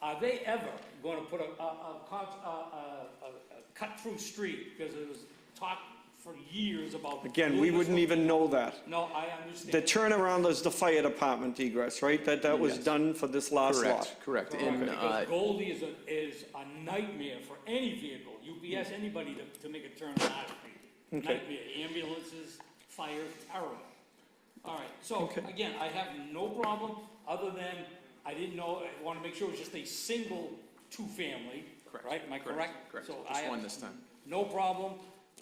Are they ever gonna put a, a, a, con- a, a, a- a cut-through street? Because it was talked for years about. Again, we doing this wouldn't one. even know that. No, I The understand. turnaround is the fire department egress, right? That, that was Yes. done for this last lot. Correct, correct. In, uh, Because Goldie is a, is a nightmare for any vehicle, UPS, anybody to, to make a turn on our street. Nightmare, ambulances, fire, terrible. All right, so, again, I have no problem, other than, I didn't know, I wanna make sure it was just a single two-family, Correct, right? Am I correct, correct? correct. So Just I have one this time. No problem,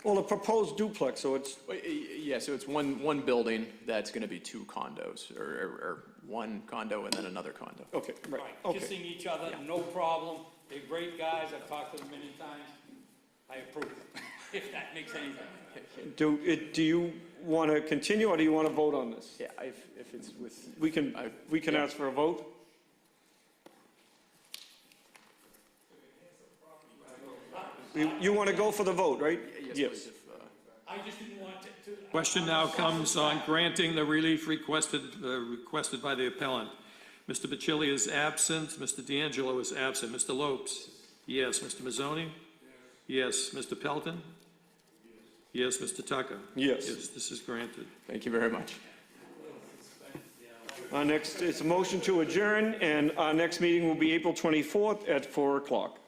Well, the proposed duplex, so it's, Well, y- y- Yeah, so it's one, one building that's going to be two condos, or, or or one condo and then another condo. okay, right, right, okay. kissing each other, no problem, they're great guys, I've talked to them many times, I approve, if that makes any sense. Do, it, do you want to continue or do you want to vote on this? Yeah, if, if it's with, We can, I- we can yeah. ask for a vote? You, you want to go for the vote, right? yes, please, if, uh, I just didn't want to. to- Question now comes on granting the relief requested, uh, requested by the appellant. Mr. Bacilli is absent, Mr. D'Angelo is absent, Mr. Lopes? Yes, Mr. Mazzoni? Yes, Mr. Pelton? Yes, Mr. Tucker? Yes. Yes, this is granted. thank you very much. Our next, it's a motion to adjourn, and our next meeting will be April 24th at 4 o'clock.